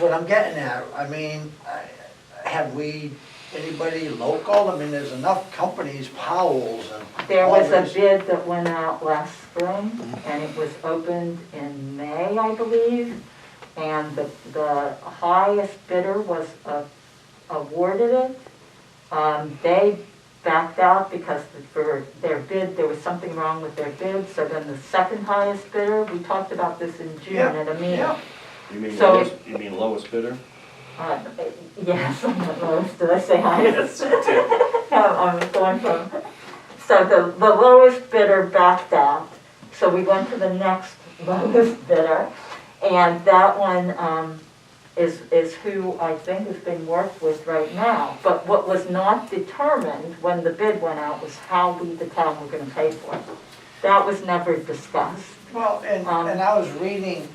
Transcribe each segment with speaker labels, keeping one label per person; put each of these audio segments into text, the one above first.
Speaker 1: What I'm getting at, I mean, I- have we, anybody local, I mean, there's enough companies, Powell's and.
Speaker 2: There was a
Speaker 1: others.
Speaker 2: bid that went out last spring, and it was opened in May, I believe. And the, the highest bidder was uh, awarded it. Um, They backed out because the- for their bid, there was something wrong with their bid. So then the second highest bidder, we talked about this in June
Speaker 1: Yeah,
Speaker 2: at a meeting.
Speaker 1: Yeah,
Speaker 3: You mean
Speaker 2: So-
Speaker 3: lowest, you mean lowest bidder?
Speaker 2: Uh, Yes, I'm not lowest, did I say highest? I'm I'm going from, so the, the lowest bidder backed out, so we went to the next lowest bidder. And that one, um, is, is who I think has been worked with right now. But what was not determined when the bid went out was how we, the town, were gonna pay for it. That was never discussed.
Speaker 1: well, and,
Speaker 2: Um,
Speaker 1: and I was reading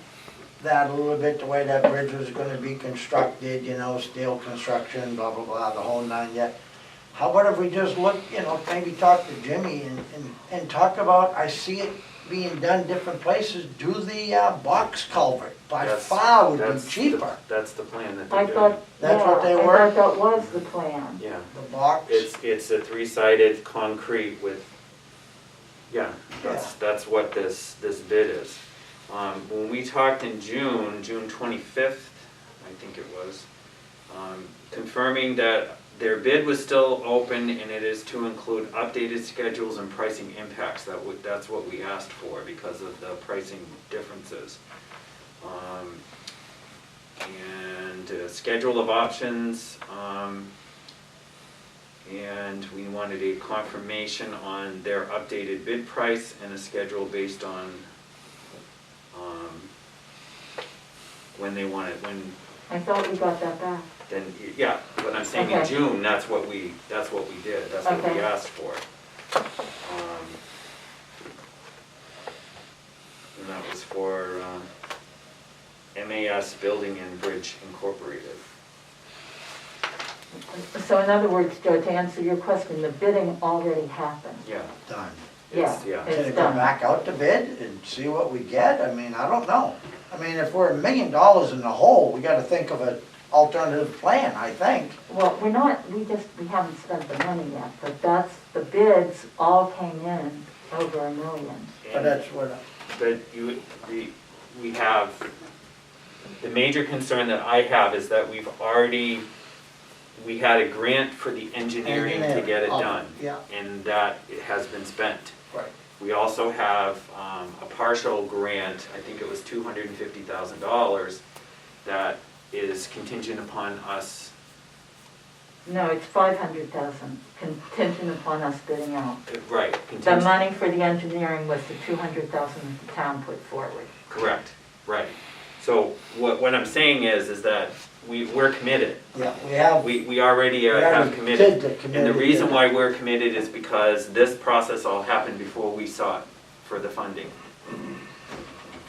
Speaker 1: that a little bit, the way that bridge was gonna be constructed, you know, steel construction, blah, blah, blah, the whole nine yet. How about if we just look, you know, maybe talk to Jimmy and, and, and talk about, I see it being done different places, do the, uh, box culvert. By
Speaker 4: That's-
Speaker 1: far would be
Speaker 4: that's the-
Speaker 1: cheaper,
Speaker 4: That's the plan that
Speaker 2: I
Speaker 4: they're doing.
Speaker 2: thought, yeah, I
Speaker 1: That's what they were?
Speaker 2: thought that was the plan.
Speaker 4: Yeah,
Speaker 1: the box.
Speaker 4: it's, it's a three-sided concrete with, yeah, that's, that's what this, this bid is. Um, when we talked in June, June twenty-fifth, I think it was, um, confirming that their bid was still open and it is to include updated schedules and pricing impacts. That would, that's what we asked for because of the pricing differences. Um, and uh, schedule of options, um, and we wanted a confirmation on their updated bid price and a schedule based on, um, when they want it, when,
Speaker 2: I thought we got that back.
Speaker 4: then, yeah, but I'm saying in
Speaker 2: Okay.
Speaker 4: June, that's what we, that's what we did, that's what
Speaker 2: Okay.
Speaker 4: we asked for. Um, And that was for, um, MAS Building and Bridge Incorporated.
Speaker 2: So in other words, Joe, to answer your question, the bidding already happened.
Speaker 4: Yeah,
Speaker 1: Done.
Speaker 2: Yeah.
Speaker 4: it's, yeah.
Speaker 1: Can
Speaker 2: It's
Speaker 1: it come
Speaker 2: done.
Speaker 1: back out to bid and see what we get? I mean, I don't know. I mean, if we're a million dollars in the hole, we gotta think of an alternative plan, I think.
Speaker 2: Well, we're not, we just, we haven't spent the money yet, but that's, the bids all came in over a million.
Speaker 1: But
Speaker 4: And-
Speaker 1: that's what,
Speaker 4: that you, the, we have, the major concern that I have is that we've already, we had a grant for the engineering to get it
Speaker 1: Engineer, oh,
Speaker 4: done.
Speaker 1: yeah.
Speaker 4: And that it has been spent.
Speaker 1: right.
Speaker 4: We also have um, a partial grant, I think it was two hundred and fifty thousand dollars, that is contingent upon us
Speaker 2: No, it's five hundred thousand contingent upon us bidding out.
Speaker 4: Right,
Speaker 2: The
Speaker 4: contingent,
Speaker 2: money for the engineering was the two hundred thousand that the town put forward.
Speaker 4: correct, right. So what, what I'm saying is, is that we, we're committed.
Speaker 1: Yeah, we have,
Speaker 4: We, we already uh,
Speaker 1: We already
Speaker 4: have
Speaker 1: did
Speaker 4: committed.
Speaker 1: the
Speaker 4: And the
Speaker 1: committed,
Speaker 4: reason
Speaker 1: yeah.
Speaker 4: why we're committed is because this process all happened before we sought for the funding.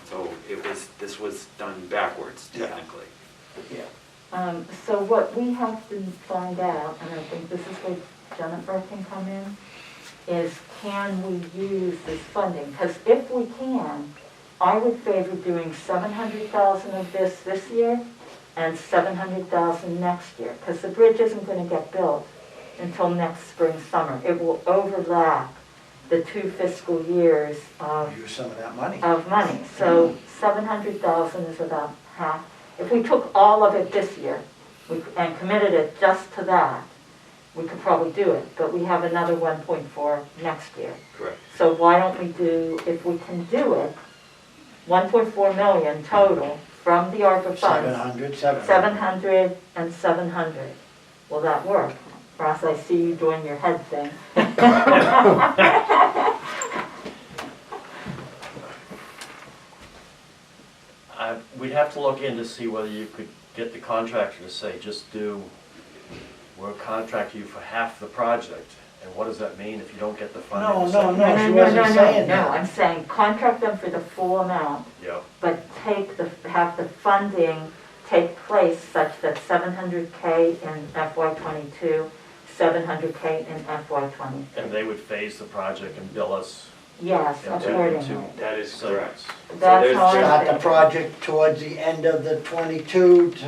Speaker 4: So it was, this was done backwards
Speaker 1: Yeah.
Speaker 4: technically.
Speaker 1: yeah.
Speaker 2: Um, so what we have to find out, and I think this is where Jennifer can come in, is can we use this funding? Because if we can, I would favor doing seven hundred thousand of this this year and seven hundred thousand next year. Because the bridge isn't gonna get built until next spring, summer. It will overlap the two fiscal years of
Speaker 1: use some of that money.
Speaker 2: of money, so seven hundred thousand is about half. If we took all of it this year we- and committed it just to that, we could probably do it, but we have another one point four next year.
Speaker 4: Correct.
Speaker 2: So why don't we do, if we can do it, one point four million total from the ARPA
Speaker 1: Seven
Speaker 2: funds,
Speaker 1: hundred, seven.
Speaker 2: seven hundred and seven hundred. Will that work? Ross, I see you doing your head thing.
Speaker 5: I, we'd have to look in to see whether you could get the contractor to say, just do, we'll contract you for half the project. And what does that mean if you don't get the funding?
Speaker 1: No,
Speaker 5: the
Speaker 1: no, no,
Speaker 5: second-
Speaker 1: she wasn't saying
Speaker 2: No, I'm
Speaker 1: that.
Speaker 2: saying contract them for the full amount
Speaker 5: Yeah,
Speaker 2: but take the, have the funding take place such that seven hundred K in FY twenty-two, seven hundred K in FY twenty.
Speaker 5: and they would phase the project and bill us.
Speaker 2: Yes,
Speaker 5: Yeah, two-
Speaker 2: accordingly.
Speaker 5: two.
Speaker 4: That is
Speaker 5: So
Speaker 4: correct.
Speaker 5: it's-
Speaker 2: That's
Speaker 4: there's-
Speaker 2: how I'm
Speaker 1: Start the
Speaker 2: thinking.
Speaker 1: project towards the end of the twenty-two to